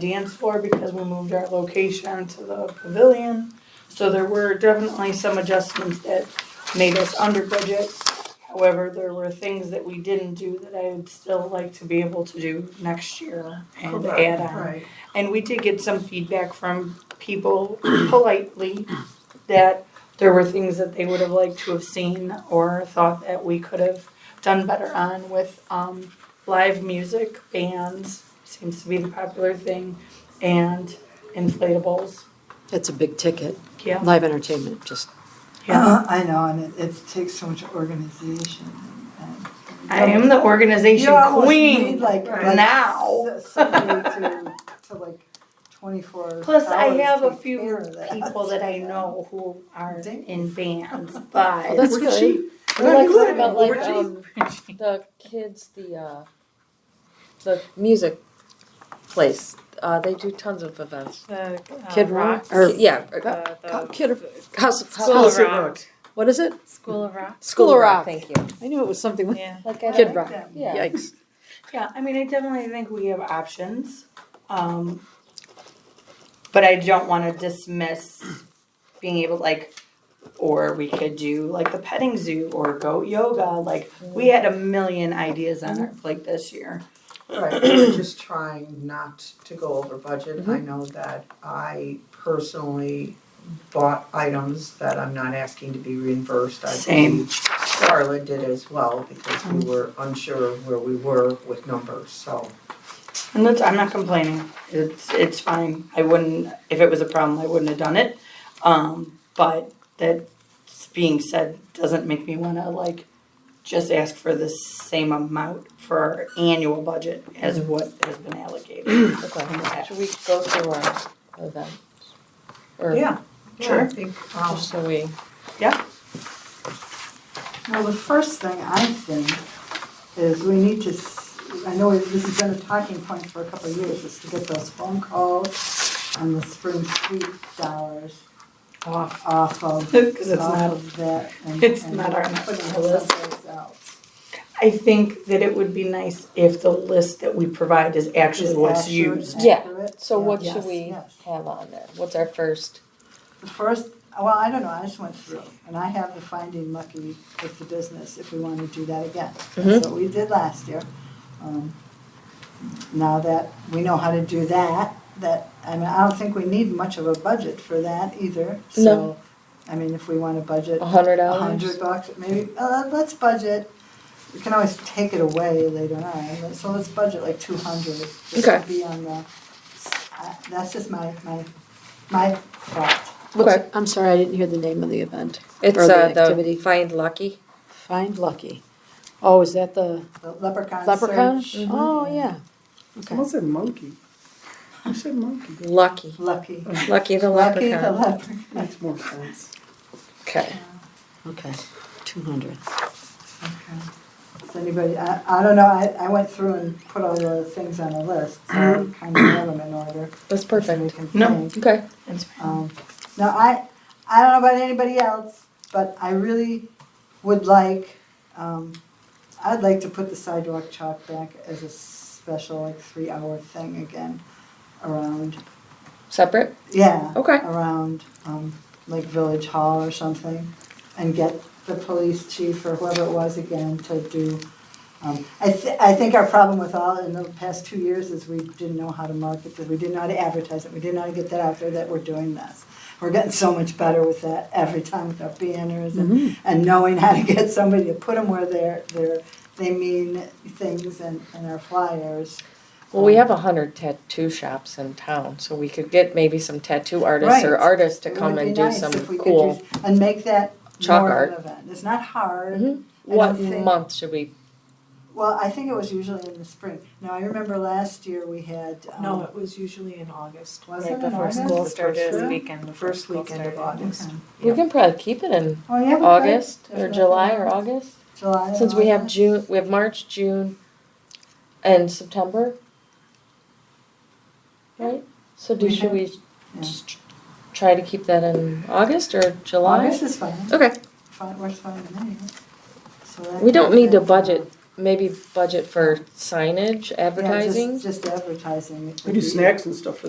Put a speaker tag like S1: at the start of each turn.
S1: dance floor because we moved our location to the pavilion. So there were definitely some adjustments that made us under budget. However, there were things that we didn't do that I would still like to be able to do next year and
S2: Correct,
S1: add on.
S2: Right,
S1: And we did get some feedback from people politely that there were things that they would have liked to have seen or thought that we could have done better on with um, live music, bands, seems to be the popular thing, and inflatables.
S3: That's a big ticket.
S1: Yeah.
S3: Live entertainment, just,
S1: Yeah.
S2: Uh-huh. I know, and it, it takes so much organization. and-
S1: I am the organization
S2: You almost
S1: queen
S2: need, like, like
S1: now.
S2: s- Somebody to, to like twenty-four
S1: Plus, I
S2: hours
S1: have a
S2: take
S1: few
S2: care of that.
S1: people that I know who are
S2: Dang.
S1: in bands,
S3: oh,
S1: but
S3: that's good.
S2: Where
S4: Like,
S2: you
S4: what
S2: live?
S4: about like
S2: Where do you-
S4: um, the kids, the uh, the music place? Uh, they do tons of events.
S5: The uh,
S3: Kid
S5: Rock.
S3: Rock, or
S4: yeah, uh,
S5: The,
S3: uh,
S5: the
S3: Kid, House, of-
S5: School
S3: House
S5: of
S3: of
S5: Rock.
S3: What is it?
S5: School of Rock.
S3: School of Rock.
S4: Thank you.
S3: I knew it was something like,
S5: Yeah.
S4: Like
S2: I
S3: Kid
S2: like
S3: Rock.
S2: them.
S4: Yeah.
S3: yikes.
S1: Yeah, I mean, I definitely think we have options. Um, but I don't want to dismiss being able like or we could do like the petting zoo or goat yoga. Like we had a million ideas on our plate this year.
S6: Right, we're just trying not to go over budget.
S1: Mm-hmm.
S6: I know that I personally bought items that I'm not asking to be reimbursed. I
S1: Same. Mm-hmm.
S6: believe Charlotte did as well because we were unsure where we were with numbers, so.
S1: And that's, I'm not complaining. It's it's fine. I wouldn't if it was a problem I wouldn't have done it. Um, but that being said doesn't make me wanna like just ask for the same amount for our annual budget as
S7: Mm-hmm.
S1: what has been allocated.
S4: Okay. Should we go through our event? Or
S6: Yeah,
S1: Sure.
S6: I think, um,
S4: Just so we.
S2: Well, the first thing I think is we need to, s- I know this has been a talking point for a couple of years, is to get those phone calls and the spring sweep dollars
S1: Off.
S2: off of,
S1: Because it's
S2: off
S1: not,
S2: of that and.
S1: it's
S2: and
S1: not our
S2: put it
S1: national list.
S2: someplace else.
S1: I think that it would be nice if the list that we provide is actually
S2: Is
S1: what's
S2: accurate,
S1: used.
S4: Yeah.
S2: accurate,
S4: So
S2: yeah.
S4: what
S1: Yes,
S4: should we
S2: yes.
S4: have on there? What's our first?
S2: The first, well, I don't know, I just went through, and I have the finding Lucky with the business if we want to do that again.
S4: Mm-hmm.
S2: That's what we did last year. Um, Now that we know how to do that, that, I mean, I don't think we need much of a budget for that either, so.
S4: No.
S2: I mean, if we want to budget
S4: A hundred
S2: a
S4: dollars.
S2: hundred bucks, maybe, uh, let's budget, we can always take it away later on, but- so let's budget like two hundred. Just to
S4: Okay.
S2: be on the, I- that's just my, my, my thought.
S3: What's-
S4: Okay.
S3: I'm sorry, I didn't hear the name of the event.
S4: It's
S3: Or the
S4: uh, the
S3: activity.
S4: Find Lucky.
S3: Find Lucky. Oh, is that the
S2: The leprechaun
S3: leprechaun?
S2: search.
S4: Mm-hmm.
S3: Oh, yeah.
S8: Someone said monkey. You said monkey.
S4: Lucky.
S2: Lucky.
S4: Lucky the
S2: Lucky the
S4: leprechaun.
S2: leprechaun.
S8: Makes more sense.
S4: Okay.
S3: Okay, two hundred.
S2: Does anybody, I, I don't know, I, I went through and put all the things on a list, so
S4: Mm-hmm.
S2: I kind of have them in order.
S4: That's
S2: so we
S4: perfect.
S2: can
S1: No.
S2: think.
S4: Okay.
S2: Um, Now, I, I don't know about anybody else, but I really would like, um, I'd like to put the sidewalk chalk back as a special, like, three-hour thing again around,
S4: Separate.
S2: yeah.
S4: Okay.
S2: around um, like Village Hall or something and get the police chief or whoever it was again to do. Um, I, th- I think our problem with all in the past two years is we didn't know how to market this. We didn't know how to advertise it. We didn't know how to get that out there that we're doing this. We're getting so much better with that every time with our banners and, and knowing how to get somebody to put them where they're, they're, they mean things and, and our flyers.
S4: Well,
S2: Um,
S4: we have a hundred tattoo shops in town, so we could get maybe some tattoo artists or
S2: Right.
S4: artists to
S2: It
S4: come
S2: would be
S4: and do
S2: nice
S4: some
S2: if we could
S4: cool.
S2: do- And make that
S4: chalk
S2: more of
S4: art.
S2: an event. It's not hard. I
S4: Mhm.
S2: don't
S4: What
S2: think-
S4: month should we?
S2: Well, I think it was usually in the spring. Now, I remember last year we had,
S7: No,
S2: um,
S7: it was usually in August,
S2: was it
S7: right
S2: in
S7: before
S2: August?
S7: school
S2: The first
S7: started,
S2: week?
S7: the weekend the before first school weekend of started.
S2: Okay.
S7: August.
S4: We can probably keep it in
S2: Oh, yeah. we could.
S4: August or
S2: There's
S4: July
S2: nothing
S4: or
S2: else.
S4: August,
S2: July and
S4: since we have
S2: August.
S4: June, we have March, June, and September. Right. So do
S2: We
S4: should
S2: have-
S4: we
S2: yeah.
S4: just try to keep that in August or July?
S2: August is fine.
S4: Okay.
S2: Fine, works fine with me. So that
S4: We don't
S2: could
S4: need to
S2: be-
S4: budget
S9: maybe budget for signage,
S4: Yeah, just-
S9: advertising?
S4: Just advertising. it
S2: We
S4: would
S2: do
S4: be-
S2: snacks and stuff for that.